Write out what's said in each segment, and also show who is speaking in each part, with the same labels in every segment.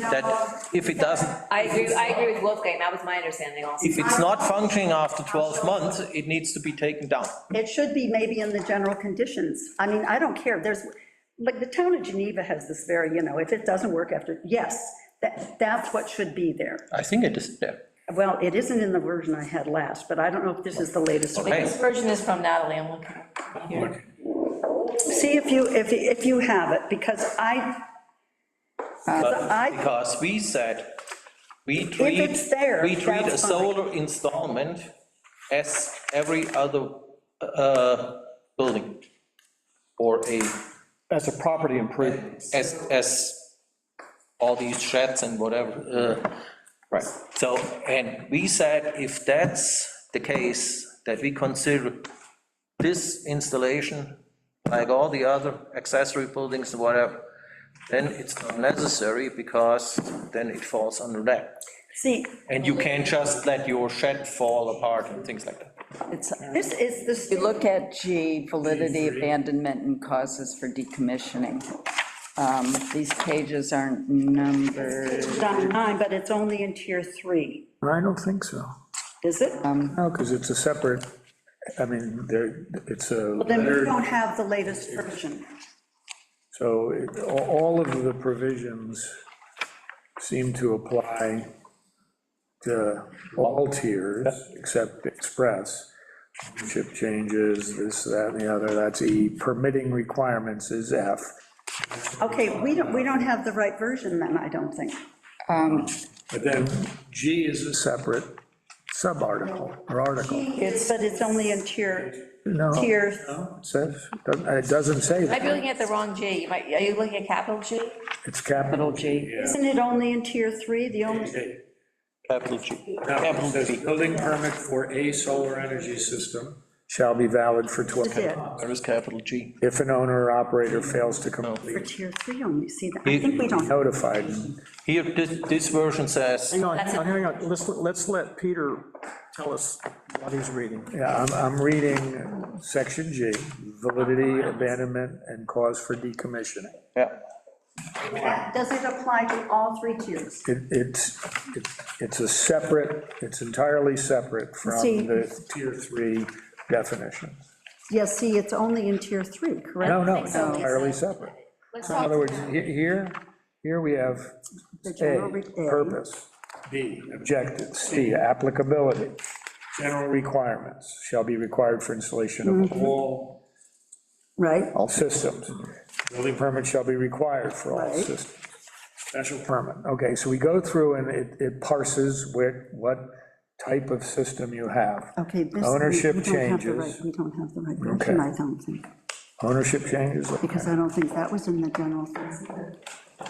Speaker 1: that if it doesn't,
Speaker 2: I agree, I agree with Wolfgang, that was my understanding also.
Speaker 1: if it's not functioning after 12 months, it needs to be taken down.
Speaker 3: It should be maybe in the general conditions. I mean, I don't care, there's, like, the town of Geneva has this very, you know, if it doesn't work after, yes, that, that's what should be there.
Speaker 1: I think it is there.
Speaker 3: Well, it isn't in the version I had last, but I don't know if this is the latest. one.
Speaker 1: Okay.
Speaker 2: This version is from Natalie, I'm looking here.
Speaker 3: See if you, if, if you have it, because I,
Speaker 1: But
Speaker 3: I-
Speaker 1: because we said, we treat.
Speaker 3: it's there,
Speaker 1: We treat a
Speaker 3: that's fine.
Speaker 1: solar installment as every other uh, building or a,
Speaker 4: As a property improvement.
Speaker 1: as, as all these sheds and whatever. uh, Right, so, and we said if that's the case, that we consider this installation, like all the other accessory buildings and whatever, then it's not necessary because then it falls under that.
Speaker 3: see,
Speaker 1: And you can't just let your shed fall apart and things like that.
Speaker 5: It's,
Speaker 3: this is
Speaker 5: you
Speaker 3: the,
Speaker 5: look at G, validity, abandonment, and causes for decommissioning. Um, These pages aren't numbered.
Speaker 3: it's on nine, but it's only in tier three,
Speaker 6: I don't think so.
Speaker 3: is it? Well,
Speaker 6: No, because it's a separate, I mean, there, it's a
Speaker 3: Then we
Speaker 6: letter,
Speaker 3: don't have the latest version.
Speaker 6: so it- a- all of the provisions seem to apply to all tiers, except express. Chip changes, this, that, and the other, that's E. Permitting requirements is F.
Speaker 3: Okay, we don't, we don't have the right version then, I don't think.
Speaker 6: But then G is a separate sub-article or article.
Speaker 3: It's, but it's only in tier,
Speaker 6: No, it
Speaker 3: tier
Speaker 6: says, doesn't- it doesn't say
Speaker 2: Might
Speaker 6: that.
Speaker 2: be looking at the wrong G, You might, are you looking at capital G?
Speaker 6: It's capital G.
Speaker 3: Isn't it only in tier three, the only,
Speaker 1: Capital G.
Speaker 7: No,
Speaker 1: Capital
Speaker 7: it says
Speaker 1: G.
Speaker 7: building permit for a solar energy system.
Speaker 6: Shall be valid for 12
Speaker 3: is it,
Speaker 1: There is capital G.
Speaker 6: If an owner or operator fails to
Speaker 3: for
Speaker 6: complete,
Speaker 3: tier three only, see, that I think we don't, have
Speaker 6: notified.
Speaker 1: Here, this, this version says,
Speaker 4: Hang on, hang on, let's, let's let Peter tell us what he's reading.
Speaker 6: Yeah, I'm, I'm reading section G, validity, abandonment, and cause for decommissioning.
Speaker 1: yeah,
Speaker 3: does it apply to all three tiers?
Speaker 6: It, it's, it- it's a separate, it's entirely separate from
Speaker 3: See.
Speaker 6: the tier three definition.
Speaker 3: Yes, see, it's only in tier three, correct?
Speaker 6: No, no, it's entirely separate. In other words, he- here, here we have
Speaker 3: The general
Speaker 6: A,
Speaker 3: re- A.
Speaker 6: purpose, B, objective, C, applicability. General requirements shall be required for installation
Speaker 3: Mm-hmm.
Speaker 6: of all
Speaker 3: Right,
Speaker 6: all systems. Building permit shall be required for all
Speaker 3: Right.
Speaker 6: systems. Special permit, okay, so we go through and it, it parses where, what type of system you have.
Speaker 3: okay. this- we-
Speaker 6: Ownership
Speaker 3: we don't have the
Speaker 6: changes.
Speaker 3: right- We don't have the right version,
Speaker 6: Okay.
Speaker 3: I don't think,
Speaker 6: Ownership changes,
Speaker 3: because I don't think that was in the general. thing.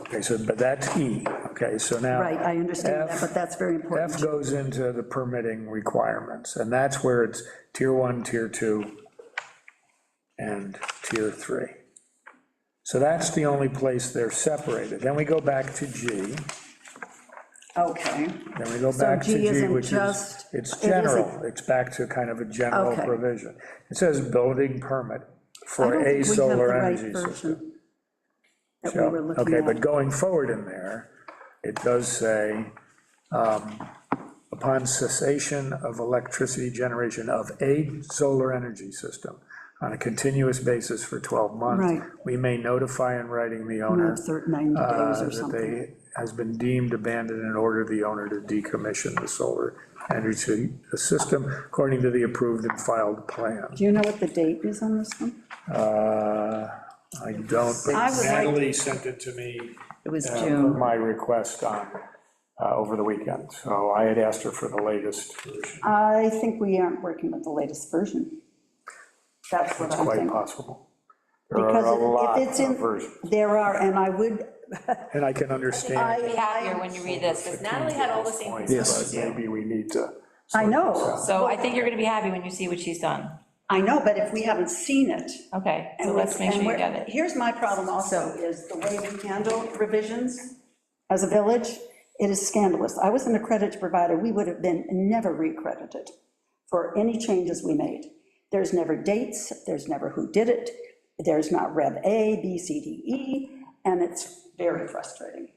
Speaker 6: okay, so, but that's E, okay, so now.
Speaker 3: Right, I understand that,
Speaker 6: F-
Speaker 3: but that's very
Speaker 6: F
Speaker 3: important.
Speaker 6: goes into the permitting requirements, and that's where it's tier one, tier two, and tier three. So that's the only place they're separated. Then we go back to G.
Speaker 3: Okay,
Speaker 6: Then we go
Speaker 3: So
Speaker 6: back
Speaker 3: G
Speaker 6: to G,
Speaker 3: isn't
Speaker 6: which is,
Speaker 3: just-
Speaker 6: it's
Speaker 3: it isn't-
Speaker 6: general, it's back to kind of a general
Speaker 3: Okay.
Speaker 6: provision. It says building permit
Speaker 3: I don't
Speaker 6: for a
Speaker 3: think we have the
Speaker 6: solar
Speaker 3: right
Speaker 6: energy system.
Speaker 3: version that we
Speaker 6: So,
Speaker 3: were looking
Speaker 6: Okay, but
Speaker 3: at.
Speaker 6: going forward in there, it does say, um, upon cessation of electricity generation of a solar energy system on a continuous basis for 12 months,
Speaker 3: Right.
Speaker 6: we may notify in writing the
Speaker 3: We
Speaker 6: owner
Speaker 3: have thir- 90
Speaker 6: uh,
Speaker 3: days or
Speaker 6: that
Speaker 3: something.
Speaker 6: they, has been deemed abandoned and order the owner to decommission the solar energy system according to the approved and filed plan.
Speaker 3: Do you know what the date is on this one?
Speaker 6: Uh, I don't,
Speaker 3: I
Speaker 6: but
Speaker 3: would like-
Speaker 7: Natalie sent it to me.
Speaker 5: It was
Speaker 6: uh,
Speaker 5: June.
Speaker 6: my request on, uh, over the weekend, so I had asked her for the latest version.
Speaker 3: I think we aren't working with the latest version. That's what
Speaker 6: It's
Speaker 3: I
Speaker 6: quite
Speaker 3: think.
Speaker 6: possible. There
Speaker 3: Because
Speaker 6: are a
Speaker 3: if-
Speaker 6: lot
Speaker 3: if it's
Speaker 6: of
Speaker 3: in,
Speaker 6: versions,
Speaker 3: there are, and I would,
Speaker 6: and I can understand,
Speaker 2: Be happier when you read this, because Natalie had all the same
Speaker 6: but
Speaker 2: concerns.
Speaker 6: maybe we need to.
Speaker 3: I know,
Speaker 2: So I think you're gonna be happy when you see what she's done.
Speaker 3: I know, but if we haven't seen it.
Speaker 2: Okay, so
Speaker 3: and
Speaker 2: let's
Speaker 3: we-
Speaker 2: make sure
Speaker 3: and
Speaker 2: you
Speaker 3: we're-
Speaker 2: get it.
Speaker 3: Here's my problem also, is the way we handle revisions as a village, it is scandalous. I was an accredited provider, we would have been never recredited for any changes we made. There's never dates, there's never who did it, there's not Rev A, B, C, D, E, and it's very frustrating.